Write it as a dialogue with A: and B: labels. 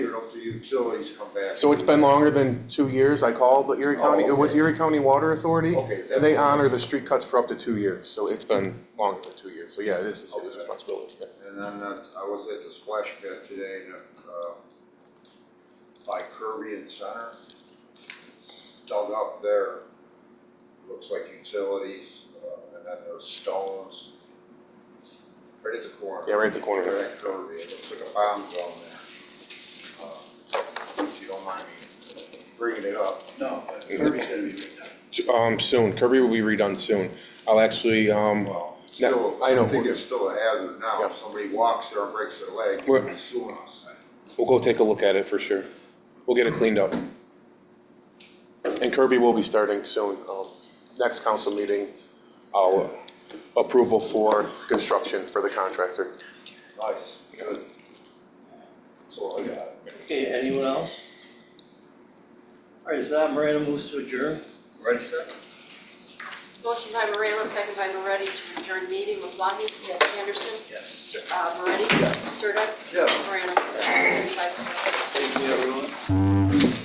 A: Leave it up to the utilities, come back.
B: So it's been longer than two years. I called the Erie County, it was
A: okay.
B: Erie County Water Authority.
A: Okay, is that-
B: And they honor the street cuts for up to two years, so it's been longer than two years. So yeah, it is the city's
A: Okay.
B: responsibility. yeah.
A: And then uh, I was at the splash pad today, and, uh, by Kirby and Center, It's dug up there. Looks like utilities, uh, and then there's stones. Right at the corner.
B: Yeah, right at the corner.
A: Right at Kirby, it looks like a bomb zone there. Uh, If you don't mind me bringing it up.
C: No, but Kirby's gonna be redone.
B: Um, soon, Kirby will be redone soon. I'll actually, um,
A: Well, still,
B: I know.
A: I think it's still a hazard now.
B: Yeah.
A: If somebody walks there and breaks their leg,
B: We're-
A: they're suing us.
B: we'll go take a look at it for sure. We'll get it cleaned up. And Kirby will be starting soon. Um, next council meeting, I'll uh, approval for construction for the contractor.
A: Nice, good. That's all I got.
C: Okay, anyone else? All right, is that Miranda moves to adjourn?
A: Ready, set?
D: Motion by Moreno, second by Moretti to adjourn meeting. LeBlancy? Yes. Anderson?
C: Yes.
D: Uh, Moretti? Yes. Sirdike?
A: Yes.
D: Morano?